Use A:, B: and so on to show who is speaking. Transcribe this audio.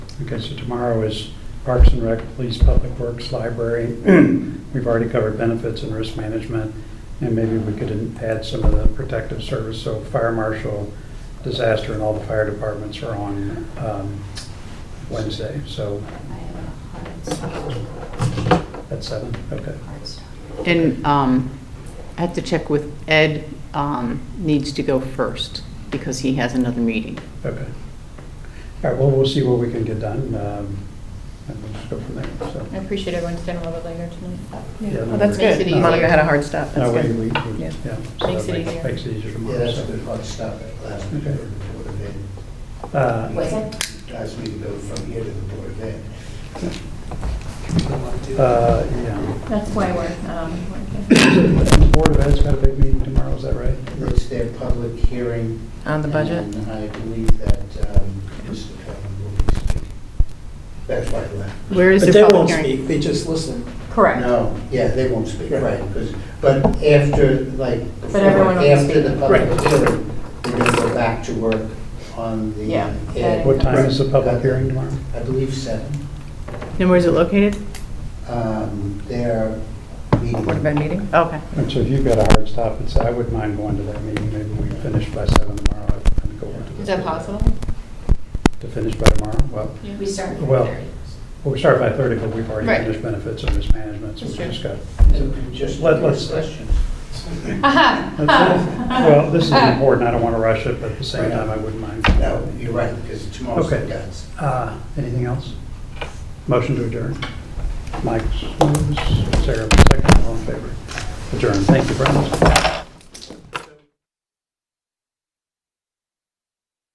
A: Okay, so tomorrow is Parks and Rec, Police, Public Works, Library. We've already covered benefits and risk management, and maybe we could add some of the protective service, so fire marshal, disaster, and all the fire departments are on um, Wednesday, so
B: I have a hard stop,
A: at seven, okay.
B: hard stop.
C: And um, I have to check with Ed, um, needs to go first because he has another meeting.
A: Okay. All right, well, we'll see what we can get done, um, and we'll just go from there, so.
D: I appreciate everyone staying a little bit later tonight.
A: Yeah, no
E: Well, that's
A: worries.
E: good.
D: Makes it
E: Monica
D: easier.
E: had a hard stop. That's
A: No, we, we,
E: good.
A: we- yeah.
E: Yeah.
A: so
D: Makes
A: that
D: it easier.
A: Makes it easier
F: Yeah,
A: tomorrow,
F: that's a
A: so.
F: good hard stop at last week,
A: Okay.
F: or the Board of Ed.
A: Uh,
B: What's that?
F: Last week, go from here to the Board of Ed.
A: uh, yeah.
D: That's why we're, um, we're here.
A: Board of Ed's got a big meeting tomorrow, is that right?
F: It's their public hearing.
E: On the budget?
F: And I believe that um, Mr. Cullen will be speaking. That's why I left.
C: Where is
G: But
C: the
G: they
C: public
G: won't
C: hearing?
G: speak, they just listen.
D: correct.
F: No, yeah, they won't speak,
G: Right.
F: right, 'cause- but after, like, before,
D: everyone will be
F: after the
D: speaking.
F: public
G: Right.
F: hearing, they're going to go back to work on the.
D: Yeah.
F: Ed.
A: What time is the public hearing tomorrow?
F: I believe seven.
C: And where's it located?
F: Um, They're meeting.
E: Board of Ed meeting?
C: Okay.
A: And so if you've got a hard stop, it's, I wouldn't mind going to that meeting, maybe we finish by seven tomorrow. I'd kinda go over to the-
D: Is that possible?
A: To finish by tomorrow, well,
B: We start at
A: Well,
B: 5:30.
A: well, we start by thirty, but we've already
D: Right.
A: finished benefits and risk management, so we
D: That's true.
A: just got.
F: Just
A: Let- let's-
F: questions.
D: Aha!
A: That's it. Well, this
D: Uh-huh.
A: is important, I don't want to rush it, but at the same time, I wouldn't mind.
F: No, you're right, because tomorrow's the
A: Okay.
F: guys.
A: Uh, Anything else? Motion to adjourn. Mike's moves, Sarah, second, all in favor. Adjourn, thank you, Brian.